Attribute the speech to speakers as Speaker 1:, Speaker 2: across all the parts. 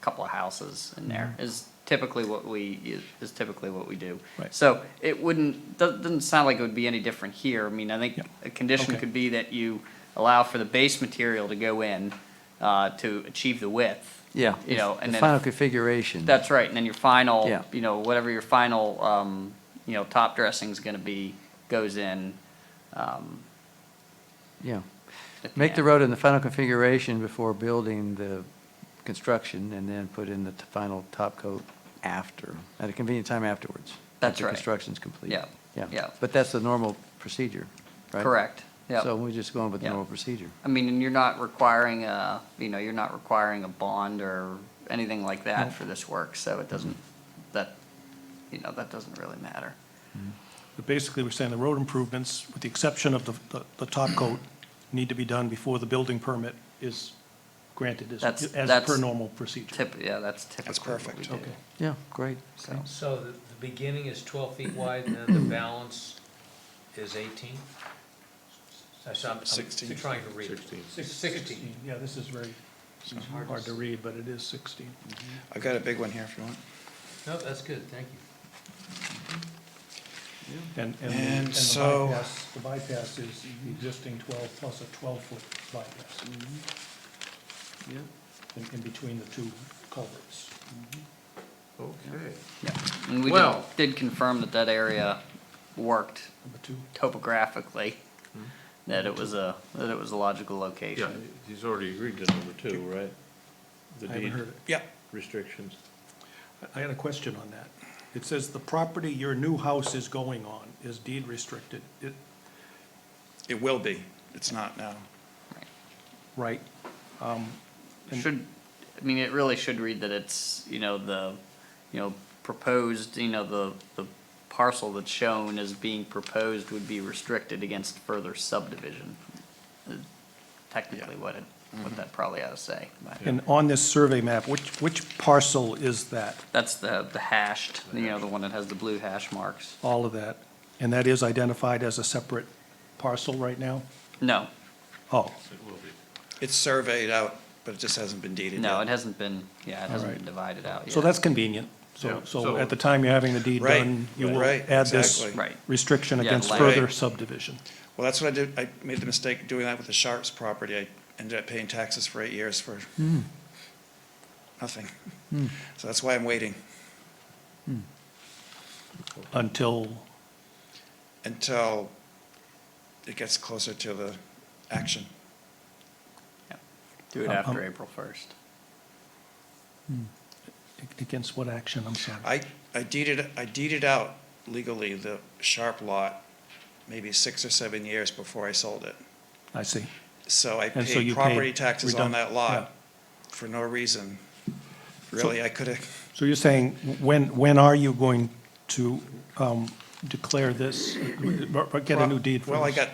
Speaker 1: couple of houses in there
Speaker 2: Mm-hmm.
Speaker 1: is typically what we, is typically what we do.
Speaker 3: Right.
Speaker 1: So it wouldn't, doesn't, doesn't sound like it would be any different here. I mean, I think
Speaker 3: Yeah.
Speaker 1: a condition
Speaker 3: Okay.
Speaker 1: could be that you allow for the base material to go in, uh, to achieve the width.
Speaker 2: Yeah.
Speaker 1: You know, and
Speaker 2: The
Speaker 1: then-
Speaker 2: Final configuration.
Speaker 1: That's right, and then your final,
Speaker 2: Yeah.
Speaker 1: you know, whatever your final, um, you know, top dressing's gonna be, goes in. um,
Speaker 2: Yeah.
Speaker 1: at
Speaker 2: Make the
Speaker 1: end.
Speaker 2: road in the final configuration before building the construction and then put in the t- final top coat after, at a convenient time afterwards.
Speaker 1: That's
Speaker 2: after
Speaker 1: right.
Speaker 2: construction's complete.
Speaker 1: Yeah, yeah.
Speaker 2: Yeah. But that's the normal procedure, right?
Speaker 1: Correct, yeah.
Speaker 2: So we're just going with the
Speaker 1: Yeah.
Speaker 2: normal procedure.
Speaker 1: I mean, and you're not requiring a, you know, you're not requiring a bond or anything like that for this work, so it doesn't, that, you know, that doesn't really matter.
Speaker 3: But basically, we're saying the road improvements, with the exception of the, the- the top coat, need to be done before the building permit is granted, as,
Speaker 1: That's-
Speaker 3: as per
Speaker 1: that's
Speaker 3: normal procedure.
Speaker 1: Tip, yeah, that's typically what we
Speaker 3: perfect,
Speaker 1: do.
Speaker 3: okay.
Speaker 2: Yeah, great.
Speaker 1: So,
Speaker 4: So the, the beginning is twelve feet wide, and then the balance is eighteen? Sixteen. I'm trying to read. Sixteen. Sixteen.
Speaker 3: Yeah, this is very hard to read, but it is 16.
Speaker 5: I've got a big one here if you want.
Speaker 4: No, that's good, thank you.
Speaker 3: And, and the-
Speaker 5: And
Speaker 3: and the
Speaker 5: so-
Speaker 3: bypass, the bypass is the existing 12 plus a 12-foot bypass
Speaker 2: Yeah.
Speaker 3: in, in between the two culverts.
Speaker 6: Okay.
Speaker 1: and we did,
Speaker 6: Well-
Speaker 1: did confirm that that area worked
Speaker 3: Number two,
Speaker 1: topographically, that it was a, that it was a logical
Speaker 6: Hmm. Yeah,
Speaker 1: location.
Speaker 6: he's already agreed to number two, right? The
Speaker 3: I haven't
Speaker 6: deed
Speaker 3: heard it.
Speaker 5: Yep.
Speaker 6: restrictions.
Speaker 3: I had a question on that. It says the property your new house is going on is deed restricted. It,
Speaker 5: It will be. It's not now.
Speaker 3: right, And-
Speaker 1: Should, I mean, it really should read that it's, you know, the, you know, proposed, you know, the, the parcel that's shown as being proposed would be restricted against further subdivision. Uh, Technically what it, what that probably ought to say. but
Speaker 3: Mm-hmm. And on this survey map, which, which parcel is that,
Speaker 1: That's the, the hashed, you know, the one that has the blue hash marks.
Speaker 3: all of that? And that is identified as a separate parcel right now?
Speaker 1: No,
Speaker 3: Oh,
Speaker 6: It will be.
Speaker 5: It's surveyed out, but it just hasn't been deeded
Speaker 1: no, it
Speaker 5: yet.
Speaker 1: hasn't been, yeah, it hasn't
Speaker 3: right.
Speaker 1: been divided out yet.
Speaker 3: so that's convenient.
Speaker 6: Yeah,
Speaker 3: So, so
Speaker 6: so-
Speaker 3: at the time you're having the deed
Speaker 5: Right,
Speaker 3: done, you will
Speaker 5: right,
Speaker 3: add this
Speaker 5: exactly.
Speaker 1: Right.
Speaker 3: restriction
Speaker 1: Yeah,
Speaker 3: against
Speaker 1: like-
Speaker 3: further
Speaker 5: Right.
Speaker 3: subdivision.
Speaker 5: Well, that's what I did. I made the mistake doing that with the Sharps property. I ended up paying taxes for eight years for nothing. So that's why I'm waiting
Speaker 3: Until,
Speaker 5: until it gets closer to the action.
Speaker 1: Do it
Speaker 3: Um,
Speaker 1: after
Speaker 3: um,
Speaker 1: April first.
Speaker 3: against what action, I'm sorry?
Speaker 5: I, I deeded, I deeded out legally the Sharp lot maybe six or seven years before I sold it.
Speaker 3: I see.
Speaker 5: So I
Speaker 3: And so you paid
Speaker 5: paid property taxes on
Speaker 3: redun-
Speaker 5: that lot for no reason. Really, I could have,
Speaker 3: So you're saying, when, when are you going to um, declare this, or- or get a new deed for this?
Speaker 5: Well, I got,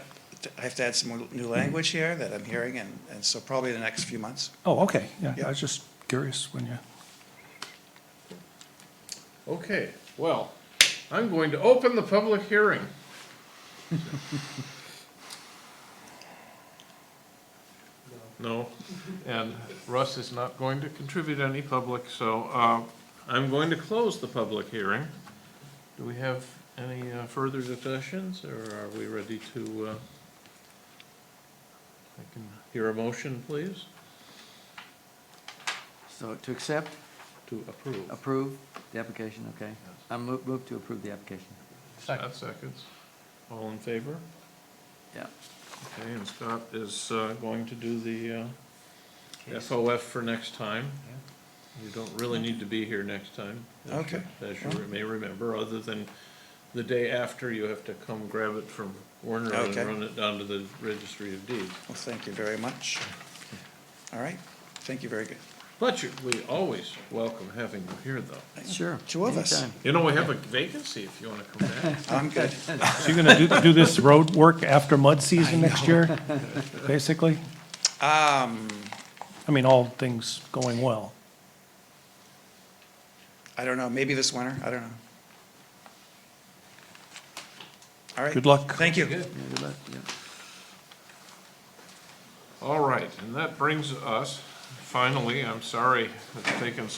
Speaker 5: I have to add some more new language here that I'm hearing, and, and so probably the next few months.
Speaker 3: Oh, okay, yeah, I
Speaker 5: Yeah.
Speaker 3: was just curious when you.
Speaker 6: Okay, well, I'm going to open the public hearing. No, and Russ is not going to contribute any public, so uh, I'm going to close the public hearing. Do we have any uh, further discussions, or are we ready to? uh, I can hear a motion, please,
Speaker 2: So to accept,
Speaker 6: to approve.
Speaker 2: approve the application, okay? I move, move to approve the application.
Speaker 6: Second. Seconds. All in favor?
Speaker 2: Yeah.
Speaker 6: Okay, and Scott is uh, going to do the uh, FOF for next time. You don't really need to be here next time. as you-
Speaker 5: Okay.
Speaker 6: As you may remember, other than the day after, you have to come grab it from Warner and
Speaker 5: Okay.
Speaker 6: run it down to the registry of deeds.
Speaker 5: Well, thank you very much. All right, thank you very good.
Speaker 6: But you, we always welcome having you here, though.
Speaker 2: Sure.
Speaker 5: Two of us.
Speaker 2: anytime.
Speaker 6: You know, we have a vacancy if you want to come back.
Speaker 5: I'm good.
Speaker 3: So you're going to do, do this road work after mud season next year, basically?
Speaker 5: Um,
Speaker 3: I mean, all things going well.
Speaker 5: I don't know, maybe this winter, I don't know. All right.
Speaker 3: Good luck.
Speaker 5: Thank you.
Speaker 2: Yeah, good luck, yeah.
Speaker 6: All right, and that brings us, finally, I'm sorry it's taken so